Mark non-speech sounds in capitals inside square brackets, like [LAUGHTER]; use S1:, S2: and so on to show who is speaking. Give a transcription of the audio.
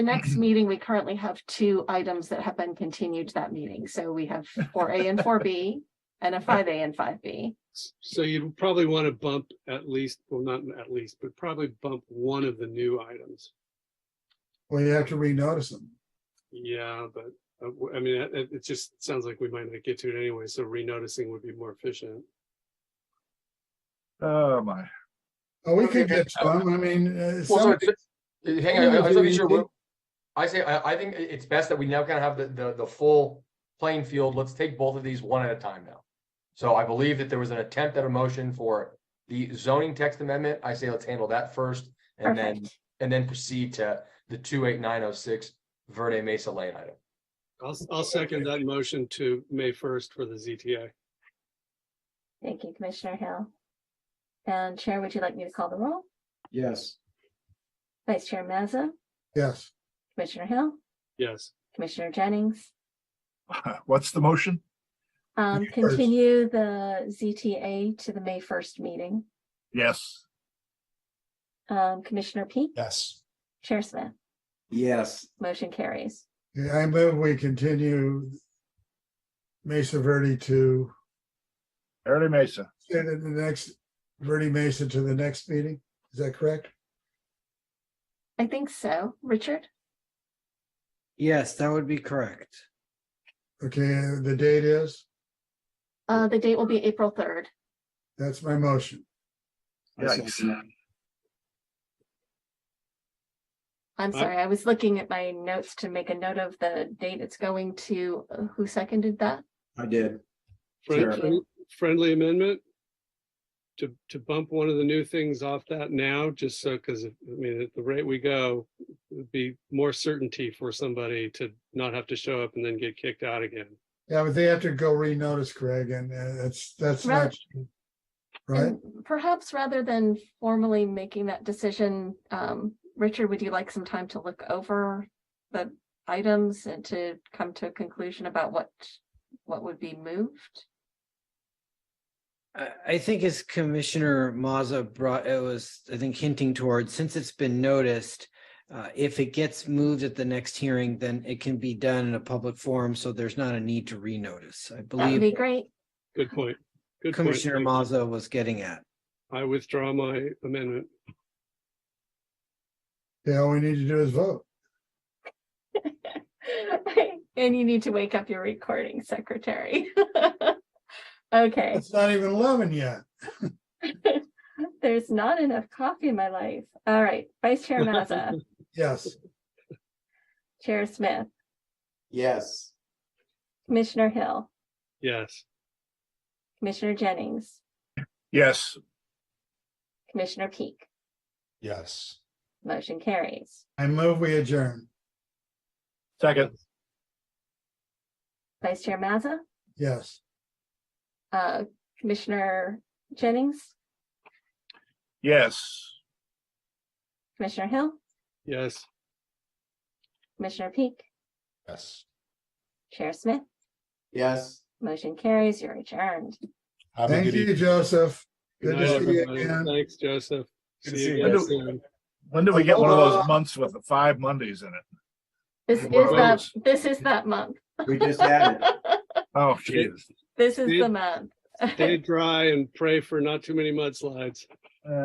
S1: The
S2: Mm-hmm.
S1: next meeting, we currently have two items that have been continued to that meeting. So we have four A and four B
S2: [LAUGHS]
S1: and a five A and five B.
S3: So you probably want to bump at least, well, not at least, but probably bump one of the new items.
S2: Well, you have to renotice them.
S3: Yeah, but uh, w- I mean, it, it just sounds like we might not get to it anyway, so renoticing would be more efficient.
S4: Oh, my.
S2: Oh, we could get some, I mean,
S5: Well,
S2: uh,
S5: so
S2: some,
S5: it's- uh, Hang
S2: some
S5: on, I- I
S2: of
S5: was making sure
S2: the-
S5: we're- I say, I, I think i- it's best that we now kind of have the, the, the full playing field. Let's take both of these one at a time now. So I believe that there was an attempt at a motion for the zoning text amendment. I say let's handle that first and then,
S1: Perfect.
S5: and then proceed to the two eight nine oh six Verde Mesa Lane item.
S3: I'll, I'll second that motion to May first for the ZTA.
S1: Thank you, Commissioner Hill. And Chair, would you like me to call the roll?
S6: yes,
S1: Vice Chair Mazza,
S2: yes,
S1: Commissioner Hill,
S3: Yes,
S1: Commissioner Jennings.
S4: What's the motion?
S1: Um,
S2: You first.
S1: continue the ZTA to the May first meeting.
S4: Yes.
S1: Um, Commissioner Peak,
S7: yes,
S1: Chair Smith,
S6: yes,
S1: motion carries.
S2: Yeah, I move we continue Mesa Verde to,
S4: Verde Mesa.
S2: say that the next, Verde Mesa to the next meeting, is that correct?
S1: I think so. Richard?
S6: yes, that would be correct.
S2: Okay, the date is,
S1: Uh, the date will be April third.
S2: that's my motion.
S6: I
S4: Yikes.
S6: second that.
S1: I'm
S3: Aye.
S1: sorry, I was looking at my notes to make a note of the date it's going to. Uh, Who seconded that?
S6: I did,
S3: Friend-
S1: Sure.
S3: friend- friendly amendment. To, to bump one of the new things off that now, just so, because I mean, at the rate we go, it'd be more certainty for somebody to not have to show up and then get kicked out again.
S2: Yeah, but they have to go renotice, Craig, and uh, that's, that's not. Right,
S1: And Perhaps rather than formally making that decision, um, Richard, would you like some time to look over the items and to come to a conclusion about what, what would be moved?
S6: I, I think as Commissioner Mazza brought, it was, I think hinting towards, since it's been noticed, uh, if it gets moved at the next hearing, then it can be done in a public forum, so there's not a need to renotice. I
S1: That would be
S6: believe
S1: great. [LAUGHS]
S3: Good point. Good point.
S6: Commissioner
S3: Thank you.
S6: Mazza was getting at.
S3: I withdraw my amendment.
S2: yeah, all we need to do is vote.
S1: And you need to wake up your recording secretary. [LAUGHS] Okay.
S2: It's not even eleven yet.
S1: There's not enough coffee in my life. All right, Vice Chair Mazza,
S2: Yes,
S1: Chair Smith,
S6: Yes.
S1: Commissioner Hill,
S3: Yes,
S1: Commissioner Jennings,
S4: Yes.
S1: Commissioner Peak.
S7: yes.
S1: Motion carries.
S2: I move we adjourn.
S4: Second.
S1: Vice Chair Mazza,
S2: Yes,
S1: uh, Commissioner Jennings,
S4: Yes.
S1: Commissioner Hill,
S3: yes.
S1: Commissioner Peak,
S7: Yes.
S1: Chair Smith.
S6: Yes.
S1: Motion carries. You're adjourned.
S7: Have a
S2: thank
S7: good
S2: you,
S7: evening.
S2: Joseph.
S3: Good
S2: Good to
S3: night,
S2: see you
S3: everybody.
S2: again.
S3: Thanks, Joseph.
S7: Good to
S3: See
S7: see
S3: you
S7: you
S3: guys
S4: guys.
S3: soon.
S4: When do we get one of those months with the five Mondays in it?
S1: This is
S4: Well,
S1: that,
S4: those-
S1: this is that month.
S6: We just had it.
S4: Oh, Jesus.
S1: This is
S3: Steve?
S1: the month.
S3: Stay dry and pray for not too many mudslides.